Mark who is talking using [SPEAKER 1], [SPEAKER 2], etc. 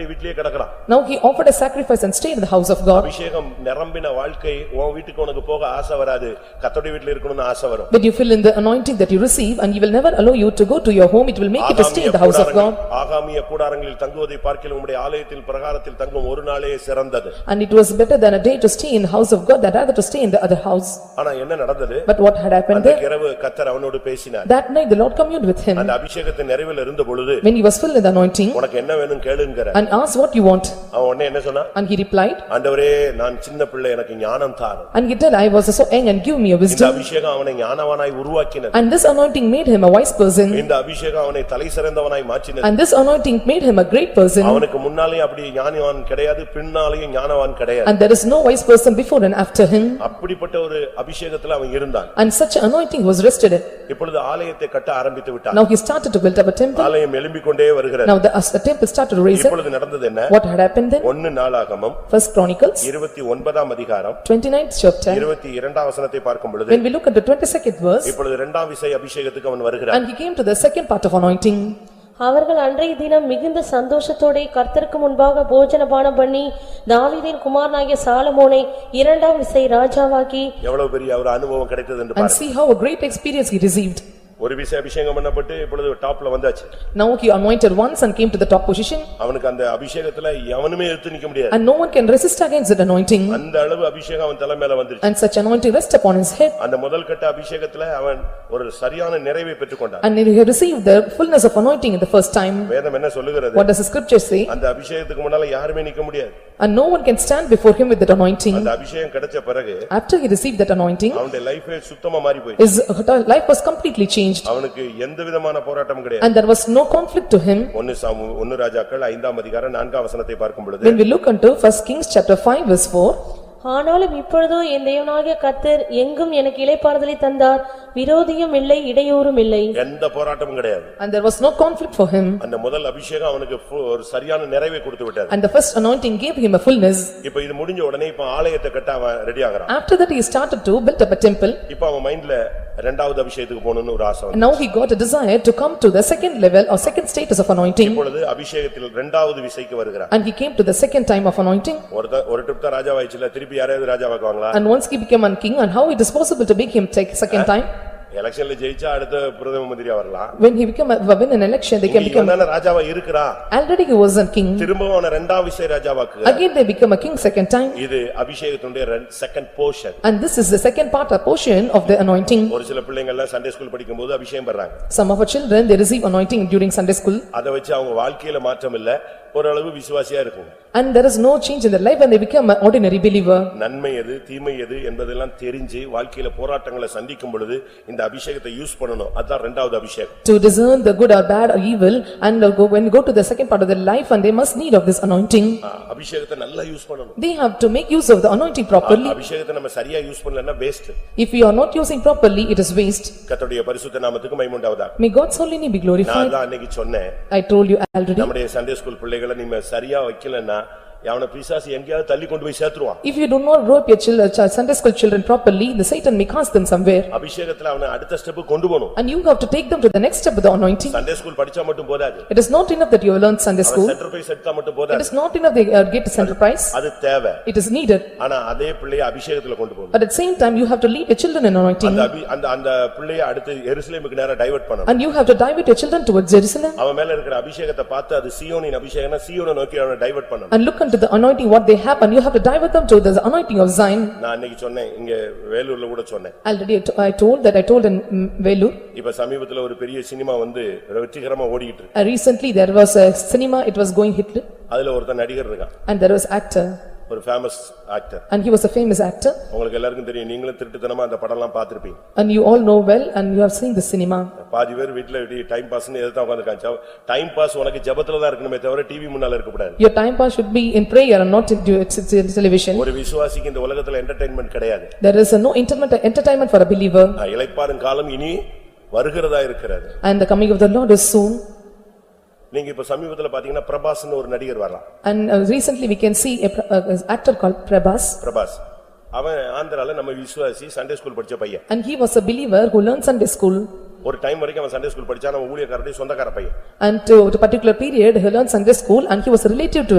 [SPEAKER 1] நீ வீட்டிலேயே கிடக்கலாம்
[SPEAKER 2] Now he offered a sacrifice and stayed in the house of God.
[SPEAKER 1] அபிஷேகம் நிரம்பின வாழ்க்கை உன் வீட்டுக்கு உனக்கு போக ஆசை வராது கத்தோடைய வீட்டுல இருக்கணும்னு ஆசை வரும்
[SPEAKER 2] But you fill in the anointing that you receive and he will never allow you to go to your home, it will make you to stay in the house of
[SPEAKER 1] ஆகாமிய
[SPEAKER 2] God.
[SPEAKER 1] கூடாரங்கள்- ஆகாமிய கூடாரங்களில் தங்குவதை பார்க்கிலும் உம்முடைய ஆலயத்தில் பிரகாரத்தில் தங்கும் ஒரு நாளே சிறந்தது
[SPEAKER 2] And it was better than a day to stay in the house of God than rather to stay in the other house.
[SPEAKER 1] ஆனா என்ன நடந்தது
[SPEAKER 2] But what had happened
[SPEAKER 1] அந்த
[SPEAKER 2] there?
[SPEAKER 1] இரவு கத்தர் அவனோடு பேசினார்
[SPEAKER 2] That night the Lord communed with him
[SPEAKER 1] அந்த அபிஷேகத்தின் நிறைவில் இருந்த பொழுது
[SPEAKER 2] when he was filled with the anointing
[SPEAKER 1] உனக்கு என்ன வேணும் கேளுங்கிற
[SPEAKER 2] and asked what you want.
[SPEAKER 1] அவன் உடனே என்ன சொன்னான்
[SPEAKER 2] And he replied,
[SPEAKER 1] ஆண்டவரே நான் சின்ன பிள்ளை எனக்கு ஞானம் தாரும்
[SPEAKER 2] and he said, I was so young and give me a
[SPEAKER 1] இந்த
[SPEAKER 2] wisdom.
[SPEAKER 1] அபிஷேகம் அவனை ஞானவனாய் உருவாக்கினது
[SPEAKER 2] And this anointing made him a wise person
[SPEAKER 1] இந்த அபிஷேகம் அவனை தலை சிறந்தவனாய் மாற்றினது
[SPEAKER 2] and this anointing made him a great person
[SPEAKER 1] அவனுக்கு முன்னாலே அப்படி ஞானவான் கிடையாது பின்னாலேயும் ஞானவான் கிடையாது
[SPEAKER 2] and there is no wise person before and after him
[SPEAKER 1] அப்படிப்பட்ட ஒரு அபிஷேகத்துல அவன் இருந்தான்
[SPEAKER 2] and such anointing was rested.
[SPEAKER 1] இப்பொழுது ஆலயத்தை கட்ட ஆரம்பித்து விட்டான்
[SPEAKER 2] Now he started to build up a temple.
[SPEAKER 1] ஆலயம் எழும்பிக் கொண்டே வருகிறது
[SPEAKER 2] Now the as the temple started to raise up.
[SPEAKER 1] இப்பொழுது நடந்தது என்ன
[SPEAKER 2] What had happened then?
[SPEAKER 1] ஒன்னு நாளாகமம்
[SPEAKER 2] First Chronicles,
[SPEAKER 1] இருபத்தி ஒன்பதாம் அதிகாரம்
[SPEAKER 2] 29th chapter.
[SPEAKER 1] இருபத்தி இரண்டாம் வசனத்தை பார்க்கும் பொழுது
[SPEAKER 2] When we look at the 22nd verse
[SPEAKER 1] இப்பொழுது இரண்டாம் விசை அபிஷேகத்துக்கு அவன் வருகிறான்
[SPEAKER 2] and he came to the second part of anointing
[SPEAKER 3] அவர்கள் அன்றைய தினம் மிகுந்த சந்தோஷத்தோடே கர்த்தருக்கு முன்பாக போஜனபானம் பண்ணி தாவீதின் குமாரனாகிய சாலமோனை இரண்டாம் விசை ராஜாவாக்கி
[SPEAKER 1] எவ்வளவு பெரிய ஒரு அனுபவம் கிடைத்தது என்று
[SPEAKER 2] and
[SPEAKER 1] பாருங்க
[SPEAKER 2] see how a great experience he received.
[SPEAKER 1] ஒரு விசை அபிஷேகம் பண்ணப்பட்டு இப்பொழுது டாப்ல வந்தாச்சு
[SPEAKER 2] Now he anointed once and came to the top position
[SPEAKER 1] அவனுக்கு அந்த அபிஷேகத்துல எவனுமே எடுத்து நிக்க முடியாது
[SPEAKER 2] and no one can resist against that anointing
[SPEAKER 1] அந்த அளவு அபிஷேகம் அவன் தலை மேல வந்துருச்சு
[SPEAKER 2] and such anointing rest upon his head
[SPEAKER 1] அந்த முதல் கட்ட அபிஷேகத்துல அவன் ஒரு சரியான நிறைவை பெற்றுக்கொண்டான்
[SPEAKER 2] And he received the fullness of anointing in the first time.
[SPEAKER 1] வேதம் என்ன சொல்லுகிறது
[SPEAKER 2] What does the scripture say?
[SPEAKER 1] அந்த அபிஷேகத்துக்கு முன்னால யாருமே நிக்க முடியாது
[SPEAKER 2] And no one can stand before him with that anointing.
[SPEAKER 1] அந்த அபிஷேகம் கிடைச்ச பிறகு
[SPEAKER 2] After he received that anointing,
[SPEAKER 1] அவனுடைய லைஃபே சுத்தமா மாறி போயிடுச்சு
[SPEAKER 2] his life was completely changed
[SPEAKER 1] அவனுக்கு எந்த விதமான போராட்டம் கிடையாது
[SPEAKER 2] and there was no conflict to him.
[SPEAKER 1] ஒன்னு சாமு ஒன்னு ராஜாக்கள் ஐந்தாம் அதிகாரம் நான்காம் வசனத்தை பார்க்கும் பொழுது
[SPEAKER 2] When we look unto first Kings chapter five verse four,
[SPEAKER 3] ஆனாலும் இப்பொழுதோ என் தேவனாகிய கர்த்தர் எங்கும் எனக்கு இளைப்பாறுதலை தந்தார் விரோதியும் இல்லை இடையூறும் இல்லை
[SPEAKER 1] எந்த போராட்டமும் கிடையாது
[SPEAKER 2] and there was no conflict for him
[SPEAKER 1] அந்த முதல் அபிஷேகம் அவனுக்கு ஃபு- ஒரு சரியான நிறைவை கொடுத்து விட்டது
[SPEAKER 2] and the first anointing gave him a fullness.
[SPEAKER 1] இப்ப இது முடிஞ்ச உடனே இப்ப ஆலயத்தை கட்ட அவன் ரெடி ஆகுறான்
[SPEAKER 2] After that, he started to build up a temple
[SPEAKER 1] இப்ப அவன் மைண்ட்ல ரெண்டாவது அபிஷேகத்துக்கு போகணும்னு ஒரு ஆசை வந்து
[SPEAKER 2] and now he got a desire to come to the second level or second status of anointing
[SPEAKER 1] இப்பொழுது அபிஷேகத்தில் ரெண்டாவது விசைக்கு வருகிறான்
[SPEAKER 2] and he came to the second time of anointing
[SPEAKER 1] ஒருத்த ஒரு ட்ரிப் தான் ராஜாவாயிடுச்சுல திருப்பி யாரையாவது ராஜாவாக்குவாங்களா
[SPEAKER 2] and once he became a king and how it is possible to make him take second time?
[SPEAKER 1] எலெக்ஷன்ல ஜெயிச்சா அடுத்த பிரதம மந்திரியா வரலாம்
[SPEAKER 2] When he become, a- when an election, they can
[SPEAKER 1] இங்க
[SPEAKER 2] become,
[SPEAKER 1] இவன் தானே ராஜாவா இருக்கிறான்
[SPEAKER 2] already he was a king,
[SPEAKER 1] திரும்பவும் அவனை ரெண்டாம் விசை ராஜாவாக்கு
[SPEAKER 2] again they become a king second time,
[SPEAKER 1] இது அபிஷேகத்தினுடைய second portion
[SPEAKER 2] and this is the second part, a portion of the anointing.
[SPEAKER 1] ஒரு சில பிள்ளைங்க எல்லாம் சண்டே ஸ்கூல் படிக்கும்போது அபிஷேகம் பண்றாங்க
[SPEAKER 2] Some of our children, they receive anointing during Sunday school,
[SPEAKER 1] அதை வச்சு அவங்க வாழ்க்கையில மாற்றம் இல்ல ஓரளவு விசுவாசியா இருக்கும்
[SPEAKER 2] and there is no change in their life, and they become an ordinary believer.
[SPEAKER 1] நன்மை எது தீமை எது என்பதெல்லாம் தெரிஞ்சு வாழ்க்கையில போராட்டங்களை சந்திக்கும் பொழுது இந்த அபிஷேகத்தை யூஸ் பண்ணணும் அதான் ரெண்டாவது அபிஷேகம்
[SPEAKER 2] To discern the good or bad or evil, and uh, go- when you go to the second part of their life, and they must need of this anointing.
[SPEAKER 1] ஆ, அபிஷேகத்தை நல்லா யூஸ் பண்ணணும்
[SPEAKER 2] They have to make use of the anointing properly.
[SPEAKER 1] அபிஷேகத்தை நம்ம சரியா use பண்ணலன்னா waste
[SPEAKER 2] If we are not using properly, it is waste.
[SPEAKER 1] கர்த்தருடைய பரிசுத்த நாமத்துக்கு மைமுண்டாவதா
[SPEAKER 2] May God's holy name be
[SPEAKER 1] நான்
[SPEAKER 2] glorified.
[SPEAKER 1] தான் அன்னைக்கு சொன்னேன்
[SPEAKER 2] I told you already.
[SPEAKER 1] நம்முடைய சண்டே ஸ்கூல் பிள்ளைகளை நீங்க சரியா வைக்கலன்னா அவனை பிசாசு எங்கேயாவது தள்ளி கொண்டு போய் சேர்த்துருவான்
[SPEAKER 2] If you do not grow up your children, Sunday school children properly, the Satan may cast them somewhere.
[SPEAKER 1] அபிஷேகத்துல அவனை அடுத்த ஸ்டெப் கொண்டு போகணும்
[SPEAKER 2] And you have to take them to the next step with the anointing.
[SPEAKER 1] Sunday school படிச்சா மட்டும் போதாது
[SPEAKER 2] It is not enough that you have learned Sunday school.
[SPEAKER 1] Centre போய் செட்டா மட்டும்
[SPEAKER 2] It
[SPEAKER 1] போதாது
[SPEAKER 2] is not enough they uh, get a center prize.
[SPEAKER 1] அது தேவை
[SPEAKER 2] It is needed.
[SPEAKER 1] ஆனா அதே பிள்ளையை அபிஷேகத்துல கொண்டு போகணும்
[SPEAKER 2] But at the same time, you have to lead your children in
[SPEAKER 1] அந்த
[SPEAKER 2] anointing.
[SPEAKER 1] அபி- அந்த அந்த பிள்ளையை அடுத்து எருசலேமுக்கு நேரா டைவர்ட் பண்ணணும்
[SPEAKER 2] And you have to divert your children towards Jerusalem.
[SPEAKER 1] அவன் மேல இருக்கிற அபிஷேகத்தை பார்த்து அது சீயோனின் அபிஷேகம்னா சீயோனை நோக்கி அவனை டைவர்ட் பண்ணணும்
[SPEAKER 2] And look unto the anointing what they have and you have to divert them to the anointing of Zion.
[SPEAKER 1] நான் அன்னைக்கு சொன்னேன் இங்க வேலூர்ல கூட சொன்னேன்
[SPEAKER 2] Already I to- I told that I told in mm, Vellore.
[SPEAKER 1] இப்ப சமீபத்துல ஒரு பெரிய சினிமா வந்து வெற்றிகரமா ஓடிட்டு இருக்கு
[SPEAKER 2] Uh, Recently, there was a cinema, it was going Hitler
[SPEAKER 1] அதுல ஒருத்தன் நடிகர் இருக்கான்
[SPEAKER 2] and there was actor.
[SPEAKER 1] ஒரு famous actor
[SPEAKER 2] And he was a famous actor
[SPEAKER 1] உங்களுக்கு எல்லாருக்கும் தெரியும் நீங்களும் திருட்டுத்தனமா அந்த படம்லாம் பார்த்திருப்பீங்க
[SPEAKER 2] and you all know well and you have seen the cinema.
[SPEAKER 1] பாதி பேர் வீட்டுல இப்படி டைம் பாஸ்னு எதிர்த்தா உட்காந்துருக்காங்க டைம் பாஸ் உனக்கு ஜெபத்துல தான் இருக்கணுமே தவிர டிவி முன்னால இருக்கக்கூடாது
[SPEAKER 2] Your time pass should be in prayer and not in do- t- t- television.
[SPEAKER 1] ஒரு விசுவாசிக்கு இந்த உலகத்துல என்டர்டெயின்மெண்ட் கிடையாது
[SPEAKER 2] There is a no entertainment entertainment for a believer
[SPEAKER 1] நான் இளைப்பாறும் காலம் இனி வருகிறதா இருக்கிறது
[SPEAKER 2] and the coming of the Lord is soon.
[SPEAKER 1] நீங்க இப்ப சமீபத்துல பாத்தீங்கன்னா பிரபாஸ்னு ஒரு நடிகர் வரலாம்
[SPEAKER 2] And uh, recently we can see a pr- uh, uh, actor called Prabhas
[SPEAKER 1] Prabhas அவன் ஆந்திரால நம்ம விசுவாசி சண்டே ஸ்கூல் படிச்ச பையன்
[SPEAKER 2] and he was a believer who learned Sunday school
[SPEAKER 1] ஒரு டைம் வரைக்கும் அவன் சண்டே ஸ்கூல் படிச்சான் அவன் ஊழியக்காரடி சொந்தக்கார பையன்
[SPEAKER 2] And to to particular period, he learned Sunday school and he was relative to